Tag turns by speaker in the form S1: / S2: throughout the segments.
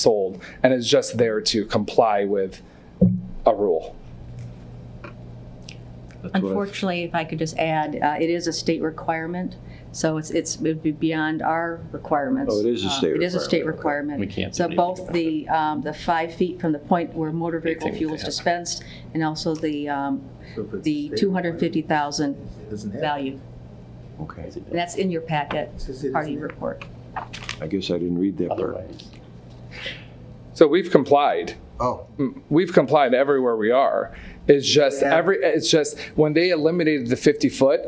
S1: sold and is just there to comply with a rule.
S2: That's what I-
S3: Unfortunately, if I could just add, uh, it is a state requirement, so it's, it's, it'd be beyond our requirements.
S2: Oh, it is a
S3: Uh,
S2: state
S3: It is a
S2: requirement,
S3: state
S2: okay.
S3: requirement.
S4: We can't do
S3: So
S4: anything
S3: both
S4: about
S3: the, um, the five feet from the point where motor vehicle
S4: Anything
S3: fuel
S4: they
S3: is
S4: have.
S3: dispensed, and also the, um,
S5: So if it's
S3: the
S5: state
S3: 250,000
S5: Doesn't have.
S3: value.
S2: Okay,
S3: And that's in your packet,
S5: says it
S3: part of
S5: is
S3: your
S5: there.
S3: report.
S2: I guess I didn't read that part.
S4: Otherwise,
S1: So we've complied.
S5: Oh,
S1: We've complied everywhere we are. It's just
S5: Yeah.
S1: every it's just when they eliminated the 50 foot,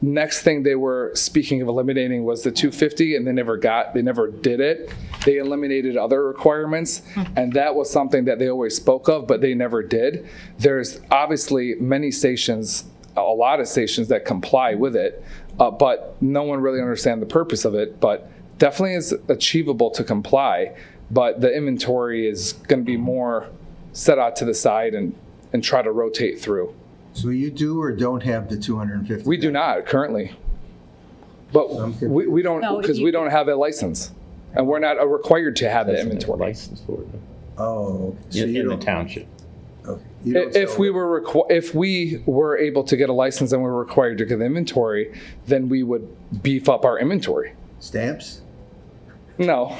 S1: next thing they were speaking of eliminating was the 250 and they never got they never did it. They eliminated other requirements and that was something that they always spoke of but they never did. There's obviously many stations a lot of stations that comply with it, uh, but no one really understand the purpose of it. But definitely is achievable to comply, but the inventory is going to be more set out to the side and and try to rotate through.
S5: so you do or don't have the 250?
S1: We do not currently, but we, we don't
S3: No,
S1: because
S3: you-
S1: we don't have a license, and we're not uh, required to have the
S4: that's a
S1: inventory.
S4: license for it,
S5: Oh. okay. So
S4: in
S5: you
S4: in the
S5: don't-
S4: township.
S5: okay. You don't
S1: If if
S5: sell
S1: we
S5: it.
S1: were requ- if we were able to get a license and we were required to get the inventory, then we would beef up our inventory.
S5: Stamps?
S1: No,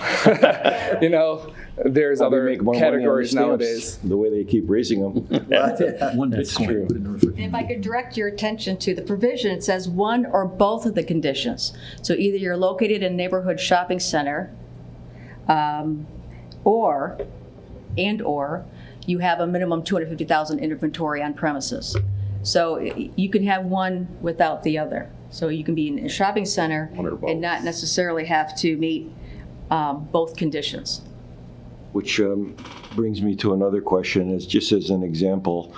S1: you know, there's
S2: Probably
S1: other
S2: make more money on the
S1: categories
S2: stamps,
S1: nowadays.
S2: The way they keep raising them.
S6: One
S2: true.
S6: Bitcoin. put it in the
S3: If
S6: refrigerator.
S3: I could direct your attention to the provision, it says one or both of the conditions. So either you're located in neighborhood shopping center, um, or, and/or, you have a minimum 250,000 inventory on premises. So y- you can have one without the other. So you can be in a shopping center
S4: One or both.
S3: and not necessarily have to meet um, both conditions.
S2: Which um, brings me to another question, is just as an example,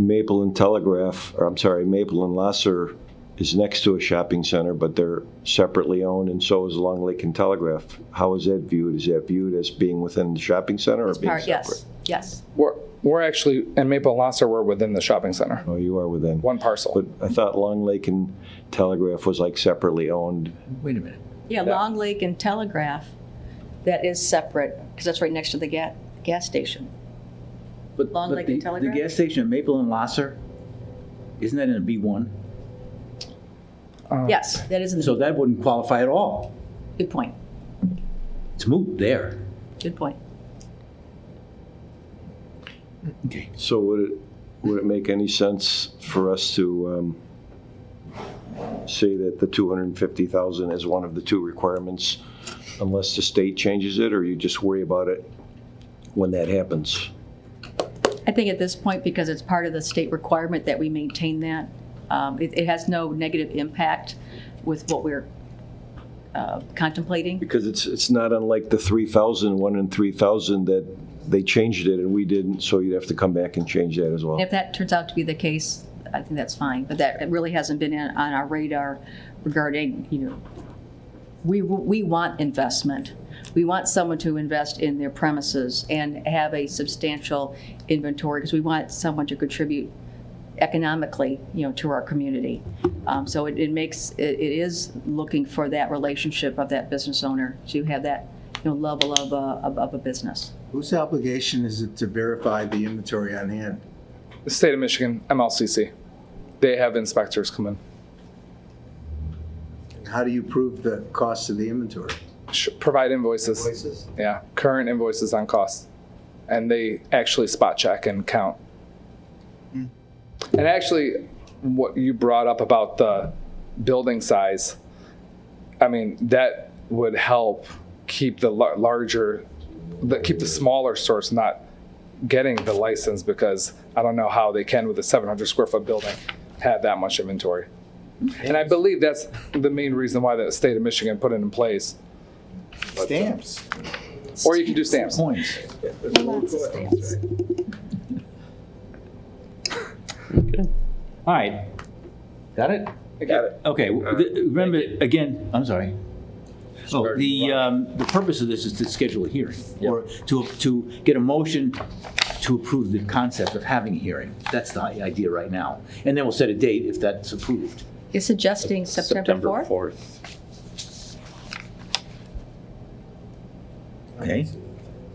S2: Maple and Telegraph, or I'm sorry, Maple and Lasser is next to a shopping center, but they're separately owned, and so is Long Lake and Telegraph. How is that viewed? Is that viewed as being within the shopping center or
S3: As
S2: being
S3: part-
S2: separate?
S3: Yes, yes.
S1: We're, we're actually, and Maple and Lasser were within the shopping center,
S2: Oh, you are within.
S1: one parcel.
S2: But I thought Long Lake and Telegraph was like separately owned.
S6: Wait a minute.
S3: Yeah, Long Lake and Telegraph, that is separate, because that's right next to the ga- gas station.
S6: But,
S3: Long
S6: but
S3: Lake
S6: the,
S3: and
S6: the
S3: Telegraph?
S6: gas station at Maple and Lasser, isn't that in a B1?
S3: Yes, that is, in
S6: So
S3: the-
S6: that wouldn't qualify at all.
S3: good point,
S6: It's moot there.
S3: good point.
S6: Okay.
S2: So would it, would it make any sense for us to um, say that the 250,000 is one of the two requirements unless the state changes it, or you just worry about it when that happens?
S3: I think at this point, because it's part of the state requirement that we maintain that, um, it it has no negative impact with what we're uh, contemplating.
S2: Because it's, it's not unlike the 3,000, one in 3,000 that they changed it and we didn't, so you'd have to come back and change that as well.
S3: If that turns out to be the case, I think that's fine, but that really hasn't been in- on our radar regarding, you know, we, we want investment. We want someone to invest in their premises and have a substantial inventory because we want someone to contribute economically, you know, to our community. Um, So it, it makes, it it is looking for that relationship of that business owner to have that, you know, level of, a- of of a business.
S5: Whose obligation is it to verify the inventory on hand?
S1: The state of Michigan, MLCC, they have inspectors come in.
S5: And How do you prove the cost of the inventory?
S1: Sh- Provide invoices,
S5: Voices?
S1: yeah, current invoices on costs. And they actually spot check and count. And actually, what you brought up about the building size, I mean, that would help keep the lar- larger, the, keep the smaller stores not getting the license because I don't know how they can with a 700 square foot building have that much inventory. And I believe that's the main reason why the state of Michigan put it in place.
S5: Stamps.
S1: Or you can do stamps.
S6: Points. All right. Got it?
S1: Got it.
S6: Okay, w- th- remember, again, I'm sorry. Oh, the, um, the purpose of this is to schedule a hearing, or to, to get a motion to approve the concept of having a hearing. That's the idea right now. And then we'll set a date if that's approved.
S3: You're suggesting September 4th?
S6: Okay?